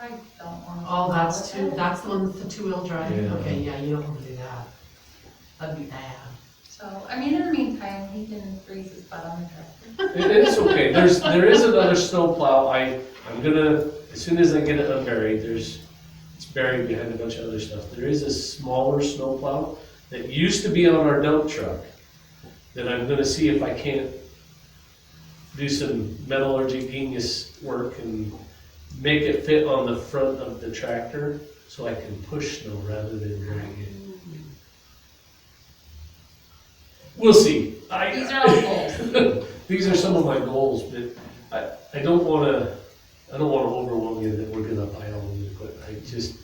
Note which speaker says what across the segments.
Speaker 1: I don't want to.
Speaker 2: Oh, that's two, that's the one with the two-wheel drive,
Speaker 3: Yeah.
Speaker 2: okay, yeah, you don't wanna do that. That'd be bad.
Speaker 1: So, I mean, in the meantime, he can freeze his butt on the tractor.
Speaker 3: It is okay, there's, there is another snowplow, I, I'm gonna, as soon as I get it unburied, there's, it's buried behind a bunch of other stuff. There is a smaller snowplow that used to be on our dump truck, that I'm gonna see if I can't do some metallurgy genius work and make it fit on the front of the tractor, so I can push snow rather than drag it. We'll see. I-
Speaker 1: These are all goals.
Speaker 3: These are some of my goals, but I, I don't wanna, I don't wanna overwhelm you that we're gonna buy all the equipment. I just,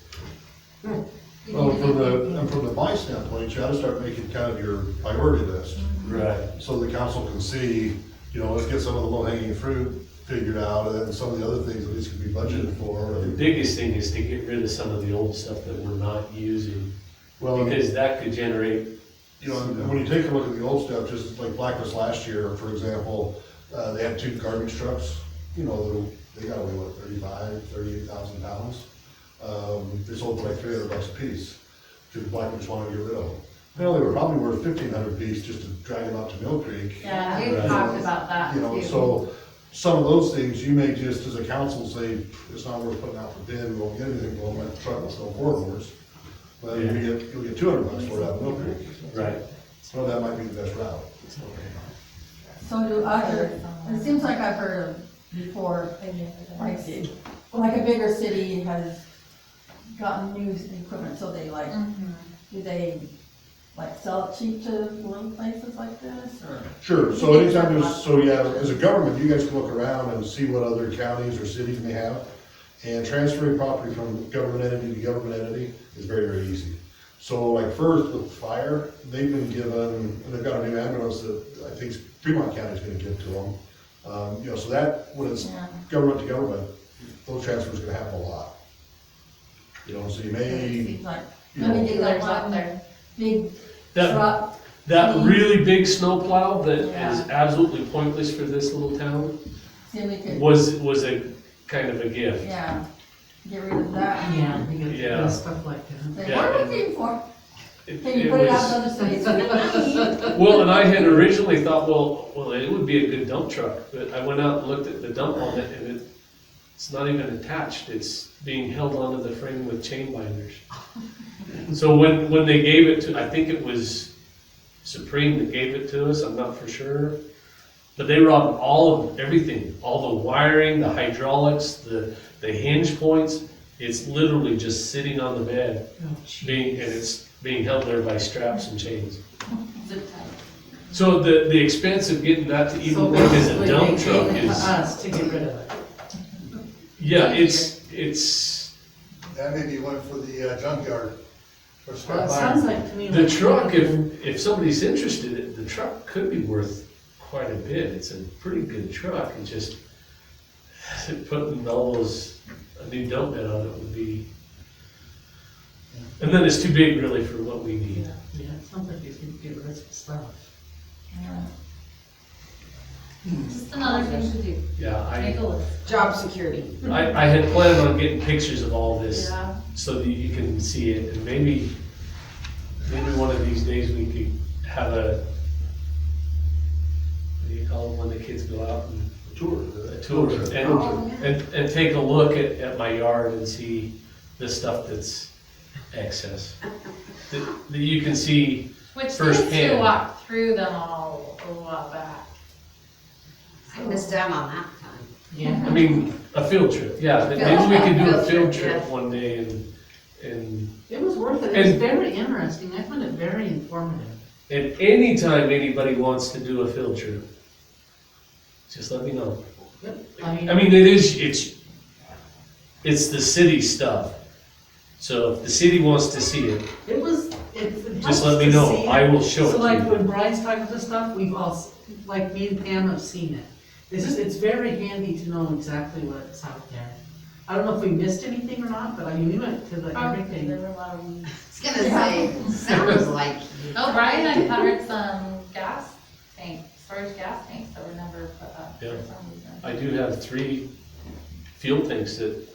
Speaker 3: Oh,
Speaker 4: Well, from the, and from the buy standpoint, you gotta start making kind of your priority list,
Speaker 3: right,
Speaker 4: so the council can see, you know, let's get some of the low hanging fruit figured out, and then some of the other things at least can be budgeted for.
Speaker 3: the
Speaker 4: and-
Speaker 3: biggest thing is to get rid of some of the old stuff that we're not using,
Speaker 4: Well, and-
Speaker 3: because that could generate,
Speaker 4: You know, and when you take a look at the old stuff, just like Blackness last year, for example, uh, they had two garbage trucks, you know, they got away with thirty-five, thirty-eight thousand pounds. Um, they sold for like three hundred bucks a piece, because Blackness wanted to get rid of them. Hell, they were probably worth fifteen hundred piece just to drag them out to Mill Creek.
Speaker 1: Yeah, we've
Speaker 3: Right.
Speaker 1: talked about that
Speaker 4: You know,
Speaker 1: too.
Speaker 4: so some of those things, you may just, as a council, say, it's not worth putting out for bid, we won't get anything, we'll let the truck, let's go forward. But you get, you'll get two hundred bucks for it out of Mill Creek.
Speaker 3: right?
Speaker 4: Well, that might be the best route.
Speaker 5: So do other, it seems like I've heard of before, like, like a bigger city has gotten new equipment, so they like,
Speaker 1: Mhm.
Speaker 5: do they like sell it cheap to little places like this, or?
Speaker 4: Sure, so anytime there's, so yeah, as a government, you guys can look around and see what other counties or cities may have. And transferring property from government entity to government entity is very, very easy. So like first with fire, they've been given, and they've got a new ambulance that I think Fremont County's gonna give to them. Um, you know, so that, when it's
Speaker 5: Yeah.
Speaker 4: government to government, those transfers are gonna happen a lot. You know, so you
Speaker 5: It
Speaker 4: may,
Speaker 5: seems like,
Speaker 4: you know,
Speaker 5: maybe like one
Speaker 1: there.
Speaker 5: big
Speaker 3: That,
Speaker 5: truck,
Speaker 3: that really big snowplow that is
Speaker 5: Yeah.
Speaker 3: absolutely pointless for this little town
Speaker 5: see we could,
Speaker 3: was, was a kind of a gift.
Speaker 5: yeah, get rid of that.
Speaker 2: Yeah, you gotta get rid
Speaker 3: Yeah.
Speaker 2: of stuff like that.
Speaker 5: Like,
Speaker 3: Yeah,
Speaker 5: what are
Speaker 3: and-
Speaker 5: we paying for?
Speaker 3: It-
Speaker 5: Can
Speaker 3: it
Speaker 5: you put it out
Speaker 3: was-
Speaker 5: to other cities? Money.
Speaker 3: Well, and I had originally thought, well, well, it would be a good dump truck, but I went out and looked at the dump on it, and it, it's not even attached, it's being held onto the frame with chain binders. So when, when they gave it to, I think it was Supreme that gave it to us, I'm not for sure, but they robbed all of, everything, all the wiring, the hydraulics, the, the hinge points, it's literally just sitting on the bed,
Speaker 2: Oh, gee.
Speaker 3: being, and it's being held there by straps and chains.
Speaker 1: Zip tie.
Speaker 3: So the, the expense of getting that to
Speaker 2: So
Speaker 3: even work as a
Speaker 2: basically,
Speaker 3: dump
Speaker 2: they uh,
Speaker 3: truck
Speaker 2: gave it to
Speaker 3: is,
Speaker 2: Us to get rid of it.
Speaker 3: yeah, it's, it's,
Speaker 6: That may be one for the uh, junkyard, for scrap
Speaker 2: Well, it
Speaker 6: iron.
Speaker 2: sounds like to me.
Speaker 3: the
Speaker 2: like-
Speaker 3: truck, if, if somebody's interested, it- the truck could be worth quite a bit. It's a pretty good truck, and just putting all those, a new dump bed on it would be, and then it's too big really for what we need.
Speaker 2: Yeah, yeah, it sounds like you could get rid of some stuff.
Speaker 1: Just another thing to do.
Speaker 3: Yeah,
Speaker 1: Make
Speaker 3: I,
Speaker 1: a list.
Speaker 7: Job security.
Speaker 3: I, I had planned on getting pictures of all this
Speaker 1: Yeah.
Speaker 3: so that you can see it, and maybe, maybe one of these days we could have a, what do you call it, when the kids go out and.
Speaker 4: tour,
Speaker 3: A tour,
Speaker 1: Oh,
Speaker 3: and, and, and take a look at, at my yard and see the stuff that's excess. That, that you can see,
Speaker 1: Which
Speaker 3: First
Speaker 1: means to
Speaker 3: hand.
Speaker 1: walk through them all a while back.
Speaker 7: I missed out on that time.
Speaker 2: Yeah.
Speaker 3: I mean, a field trip, yeah, that maybe we can do a field trip
Speaker 7: yeah.
Speaker 3: one day and, and
Speaker 2: It was worth it, it was
Speaker 3: And-
Speaker 2: very interesting, I found it very informative.
Speaker 3: And anytime anybody wants to do a field trip, just let me know.
Speaker 2: I mean-
Speaker 3: I mean, it is, it's, it's the city stuff. So if the city wants to see it,
Speaker 2: It was, it's. it helps
Speaker 3: just let me
Speaker 2: to
Speaker 3: know,
Speaker 2: see
Speaker 3: I will show it
Speaker 2: So like
Speaker 3: to
Speaker 2: when Brian's talking to stuff, we've all, s- like me and Pam have seen it. It's just, it's very handy to know exactly what's out there. I don't know if we missed anything or not, but I mean, we went to the
Speaker 1: Probably there
Speaker 2: everything.
Speaker 1: were a lot of weeds.
Speaker 7: I was gonna say, sounds like
Speaker 1: Oh, Brian uncovered some gas tank, storage gas tanks that were never put up
Speaker 3: Yeah.
Speaker 1: for some reason.
Speaker 3: you. I do have three field things that